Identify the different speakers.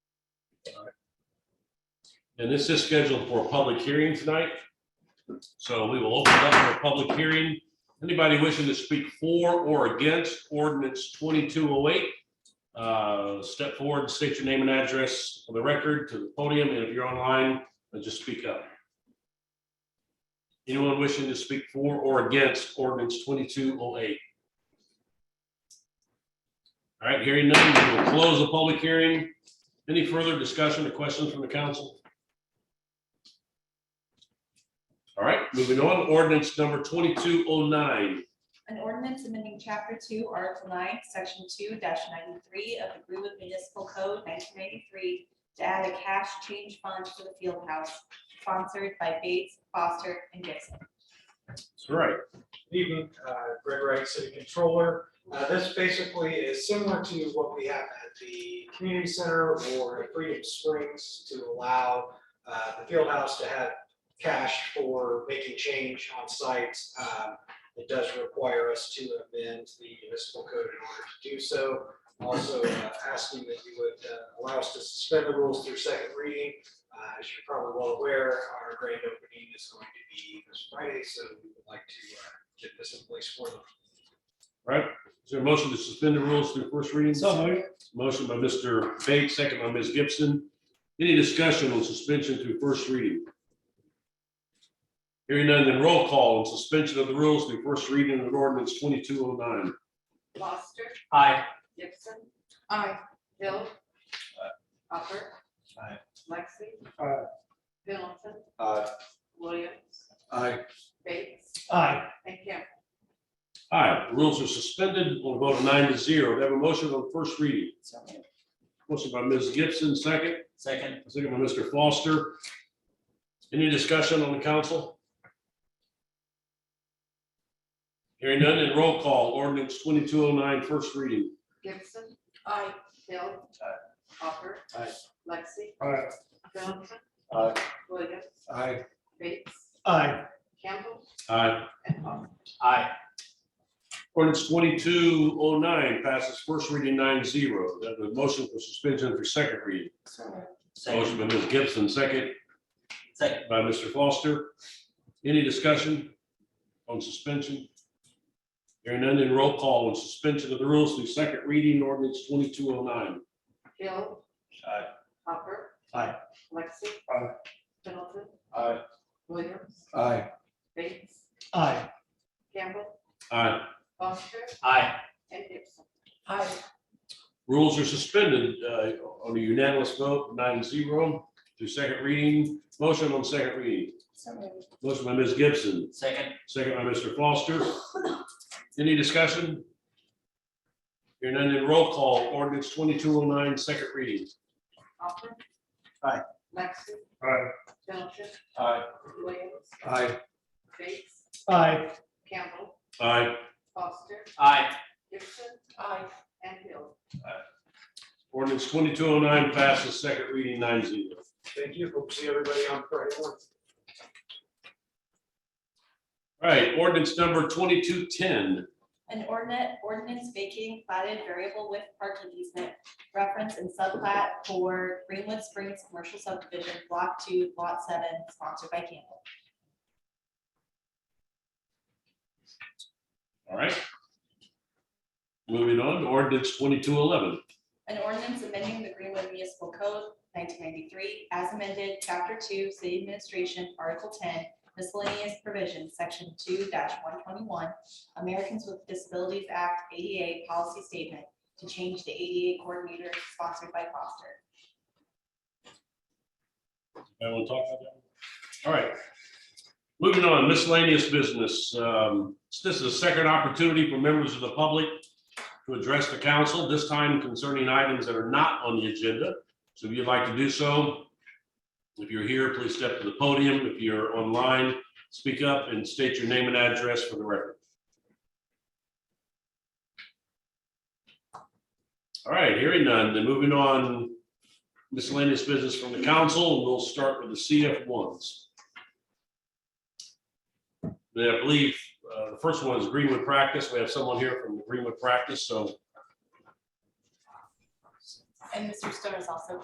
Speaker 1: And this is scheduled for a public hearing tonight. So we will open it up for a public hearing. Anybody wishing to speak for or against ordinance 2208? uh, Step forward, state your name and address for the record to the podium, and if you're online, uh, just speak up. Anyone wishing to speak for or against ordinance 2208? All right, hearing none, we will close the public hearing. Any further discussion or questions from the council? All right, moving on, ordinance number twenty-two oh nine.
Speaker 2: An ordinance amending chapter two, article nine, section two ninety-three of the Greenwood Municipal Code nineteen ninety-three to add a cash change fund to the field house, sponsored by Bates, Foster, and Gibson.
Speaker 1: That's right.
Speaker 3: Good Evening, uh, Greg Wright, City Controller. Uh, This basically is similar to what we have at the community center or at Freedom Springs to allow uh, the field house to have cash for making change on site. Um, It does require us to amend the municipal code in order to do so. Also uh, asking that you would uh, allow us to suspend the rules through second reading. Uh, As you're probably well aware, our grand opening is going to be this Friday, so we would like to uh, get this in place for them.
Speaker 1: Is there a motion to suspend the rules through first reading? Motion by Mr. Bates, second by Ms. Gibson. Any discussion on suspension through first reading? Hearing none, then roll call on suspension of the rules through first reading of ordinance twenty-two oh nine.
Speaker 4: Foster,
Speaker 3: Aye.
Speaker 4: Gibson. Aye. Hill. Hopper.
Speaker 3: Aye.
Speaker 4: Lexi.
Speaker 3: Aye.
Speaker 4: Pendleton,
Speaker 3: Aye.
Speaker 4: Williams,
Speaker 3: Aye.
Speaker 4: Bates,
Speaker 3: Aye.
Speaker 4: and Campbell.
Speaker 1: Aye, the rules are suspended on a vote of nine to zero. They have a motion on first reading. Motion by Ms. Gibson, second.
Speaker 5: Second.
Speaker 1: Second by Mr. Foster. Any discussion on the council? Hearing none, and roll call, ordinance 2209, first reading.
Speaker 4: Gibson. Aye. Hill. Hopper.
Speaker 3: Aye.
Speaker 4: Lexi.
Speaker 3: Aye.
Speaker 4: Pendleton.
Speaker 3: Aye.
Speaker 4: Williams,
Speaker 3: Aye.
Speaker 4: Bates,
Speaker 3: Aye.
Speaker 4: Campbell,
Speaker 1: Aye.
Speaker 4: and Hopper.
Speaker 5: Aye.
Speaker 1: Ordinance 2209 passes first reading 9-0. That was motion for suspension for second reading. Motion by Ms. Gibson, second
Speaker 5: Second.
Speaker 1: by Mr. Foster. Any discussion on suspension? Hearing none, and roll call on suspension of the rules through second reading, ordinance 2209.
Speaker 4: Hill.
Speaker 5: Aye.
Speaker 4: Hopper.
Speaker 3: Aye.
Speaker 4: Lexi.
Speaker 3: Aye.
Speaker 4: Pendleton,
Speaker 3: Aye.
Speaker 4: Williams,
Speaker 3: Aye.
Speaker 4: Bates,
Speaker 3: Aye.
Speaker 4: Campbell,
Speaker 1: Aye.
Speaker 4: Foster,
Speaker 5: Aye.
Speaker 4: and Gibson. Aye.
Speaker 1: Rules are suspended uh, on a unanimous vote, nine zero, through second reading. Motion on second reading. Motion by Ms. Gibson,
Speaker 5: Second.
Speaker 1: second by Mr. Foster. Any discussion? Hearing none, then roll call, ordinance 2209, second reading.
Speaker 4: Hopper.
Speaker 3: Aye.
Speaker 4: Lexi.
Speaker 3: Aye.
Speaker 4: Middleton.
Speaker 5: Aye.
Speaker 4: Williams.
Speaker 3: Aye.
Speaker 4: Bates.
Speaker 3: Aye.
Speaker 4: Campbell.
Speaker 1: Aye.
Speaker 4: Foster.
Speaker 5: Aye.
Speaker 4: Gibson. Aye. And Hill.
Speaker 1: Ordinance 2209 passes second reading, nine zero.
Speaker 3: Thank you. Hope to see everybody on Friday morning.
Speaker 1: All right, ordinance number 2210.
Speaker 2: An ordinance, ordinance vacating platted variable width parking easement reference and subplat for Greenwood Springs Commercial Subdivision, block two, lot seven, sponsored by Campbell.
Speaker 1: All right. Moving on, ordinance 2211.
Speaker 2: An ordinance amending the Greenwood Municipal Code nineteen ninety-three as amended, chapter two, city administration, article ten, miscellaneous provisions, section two one twenty-one, Americans with Disabilities Act ADA policy statement to change the ADA coordinator sponsored by Foster.
Speaker 1: I will talk about that. All right. Moving on, miscellaneous business. Um, This is a second opportunity for members of the public to address the council, this time concerning items that are not on the agenda. So if you'd like to do so, if you're here, please step to the podium. If you're online, speak up and state your name and address for the record. All right, hearing none, then moving on, miscellaneous business from the council, and we'll start with the CF ones. Then I believe, uh, the first one is Greenwood Practice. We have someone here from Greenwood Practice, so
Speaker 2: And Mr. Stone is also